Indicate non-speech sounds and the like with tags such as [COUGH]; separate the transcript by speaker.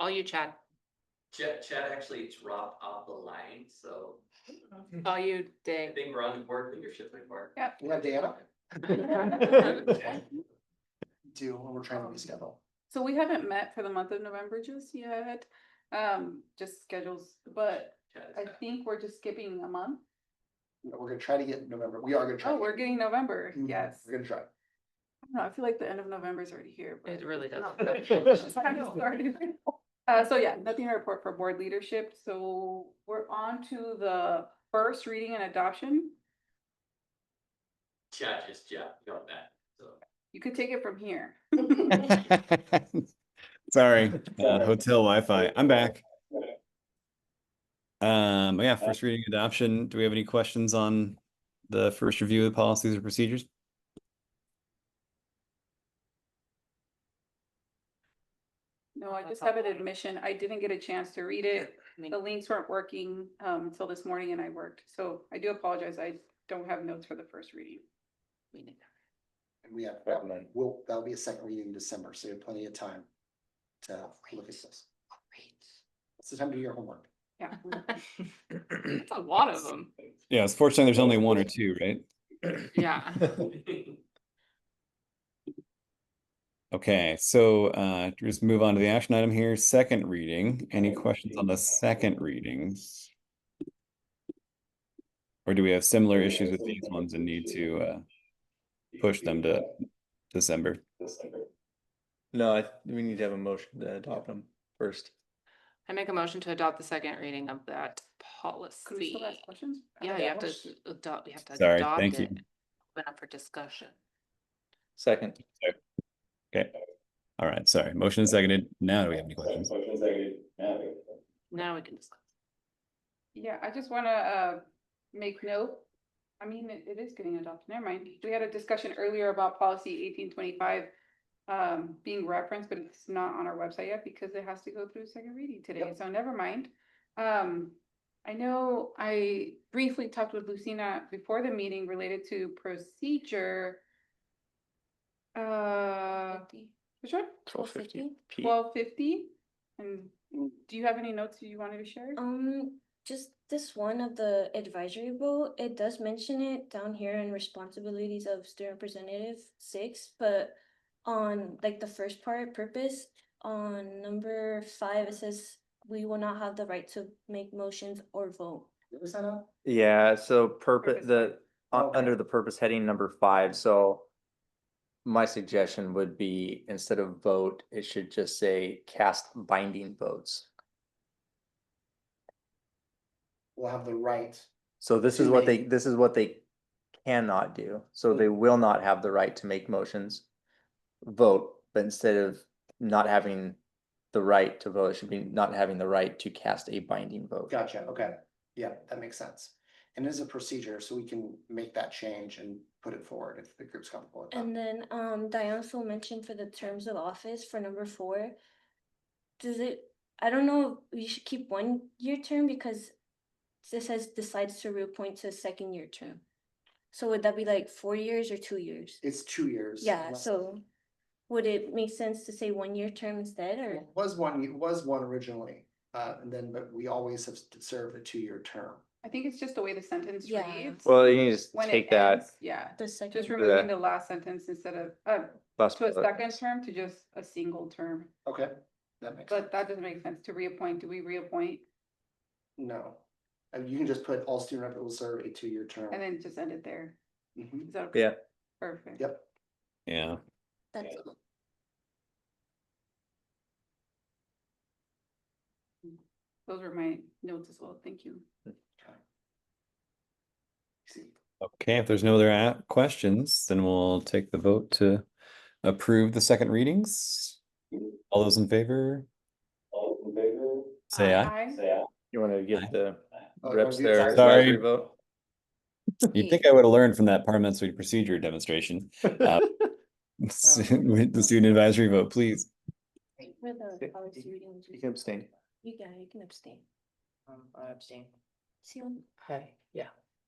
Speaker 1: All you, Chad.
Speaker 2: Chad, Chad actually dropped off the line, so
Speaker 1: All you,
Speaker 2: I
Speaker 1: Dave.
Speaker 2: think we're on the board leadership report.
Speaker 3: Yeah, Dana,
Speaker 2: That's
Speaker 3: do what we're trying to reschedule.
Speaker 4: So we haven't met for the month of November just yet, um, just schedules, but I think we're just skipping a month.
Speaker 3: But We're gonna try to get November. We are gonna try.
Speaker 4: Oh,
Speaker 3: to
Speaker 4: we're getting November,
Speaker 3: get- Mhm,
Speaker 4: yes.
Speaker 3: We're gonna try.
Speaker 4: No, I feel like the end of November is already here. but-
Speaker 1: It really does.
Speaker 4: It's
Speaker 1: [LAUGHS]
Speaker 4: kind of started. Uh, so yeah, nothing to report for board leadership, so we're on to the first reading and adoption.
Speaker 2: Chad just, yeah, got that, so.
Speaker 4: You could take it from here.
Speaker 5: [LAUGHS] Sorry, uh, hotel Wi-Fi. I'm back. Um, yeah, first reading adoption. Do we have any questions on the first review of the policies or procedures?
Speaker 4: No, I just have an admission, I didn't get a chance to read it. The links weren't working um until this morning and I worked, so I do apologize, I don't have notes for the first reading.
Speaker 3: And we have, we'll, that'll be a second reading in December, so you have plenty of time to look at this. It's the time to do your homework.
Speaker 1: [LAUGHS]
Speaker 4: Yeah.
Speaker 1: That's a lot of them.
Speaker 5: Yeah, it's fortunate there's only one or two, right?
Speaker 1: Yeah.
Speaker 5: Okay, so uh, just move on to the action item here. Second reading. Any questions on the second readings? Or do we have similar issues with these ones and need to uh, push them to December?
Speaker 6: No, I, th- we need to have a motion to adopt them first.
Speaker 1: I make a motion to adopt the second reading of that
Speaker 4: Could we
Speaker 1: policy.
Speaker 4: still ask questions?
Speaker 1: Yeah,
Speaker 3: that
Speaker 1: you have to
Speaker 3: was-
Speaker 1: adopt, you have to
Speaker 5: Sorry,
Speaker 1: adopt
Speaker 5: thank
Speaker 1: it.
Speaker 5: you.
Speaker 1: Open up for discussion.
Speaker 6: Second,
Speaker 5: Okay, all right, sorry, motion is seconded, now do we have any questions?
Speaker 1: Now we can discuss.
Speaker 4: Yeah, I just wanna uh make note, I mean, it it is getting adopted, never mind, we had a discussion earlier about policy eighteen twenty-five. Um, being referenced, but it's not on our website yet because it has to go through second reading today, so never mind. Um, I know I briefly talked with Lucina before the meeting related to procedure. Uh, which one?
Speaker 7: Twelve fifty?
Speaker 6: Pete.
Speaker 4: Twelve fifty? And do you have any notes you wanted to share?
Speaker 7: Um, just this one of the advisory vote, it does mention it down here in responsibilities of student representative six, but on like the first part, purpose, on number five, it says we will not have the right to make motions or vote.
Speaker 3: Did we sign up?
Speaker 6: yeah, so
Speaker 4: Purpose
Speaker 6: purpose, the, u-
Speaker 3: Okay.
Speaker 6: under the purpose heading number five, so. My suggestion would be, instead of vote, it should just say cast binding votes.
Speaker 3: We'll have the right.
Speaker 6: So this is
Speaker 3: To
Speaker 6: what they,
Speaker 3: make-
Speaker 6: this is what they cannot do, so
Speaker 3: Mm.
Speaker 6: they
Speaker 4: Hmm.
Speaker 6: will not have the right to make motions. Vote, but instead of not having the right to vote, it should be not having the right to cast a binding vote.
Speaker 3: Gotcha, okay. Yeah, that makes sense. And it is a procedure, so we can make that change and put it forward if the group's comfortable with
Speaker 7: And
Speaker 3: that.
Speaker 7: then, um, Diane also mentioned for the terms of office for number four. Does it, I don't know, if we should keep one year term because this says decides to reappoint to a second year term. So would that be like four years or two years?
Speaker 3: It's two years.
Speaker 7: Yeah,
Speaker 3: unless-
Speaker 7: so would it make sense to say one year term instead or?
Speaker 3: It Was one, it was one originally, uh, and then, but we always have served a two-year term.
Speaker 4: I think it's just the way the sentence
Speaker 7: Yeah.
Speaker 4: reads.
Speaker 6: Well, you need to
Speaker 4: when it
Speaker 6: take that
Speaker 4: ends, Yeah,
Speaker 7: The
Speaker 4: just
Speaker 7: second,
Speaker 4: removing the last sentence instead of, uh,
Speaker 6: bus.
Speaker 4: to a
Speaker 6: vote.
Speaker 4: second term to just a single term.
Speaker 3: Okay, that makes. sense.
Speaker 4: But that doesn't make sense to reappoint. Do we reappoint
Speaker 3: No, Uh, you can just put all student rep will serve a two-year term.
Speaker 4: and then just end it there?
Speaker 3: Mhm.
Speaker 4: Is that okay?
Speaker 6: Yeah.
Speaker 4: Perfect.
Speaker 3: Yep,
Speaker 5: Yeah,
Speaker 7: that's,
Speaker 4: Those were my notes as well. Thank you.
Speaker 3: see,
Speaker 5: okay, if there's no other a- questions, then we'll take the vote to approve the second readings. All those in favor? Say aye.
Speaker 6: You wanna
Speaker 5: Aye.
Speaker 6: give the
Speaker 3: Oh,
Speaker 6: reps
Speaker 3: you-
Speaker 5: Sorry.
Speaker 6: their advisory vote?
Speaker 5: You'd think I would have learned from that parliamentary procedure demonstration. Uh, [LAUGHS] with The student advisory vote, please.
Speaker 7: for the
Speaker 6: Okay,
Speaker 7: policy reading,
Speaker 6: You can abstain.
Speaker 7: you can, you can abstain.
Speaker 8: Um, I abstain.
Speaker 7: See, on-
Speaker 8: Okay, yeah.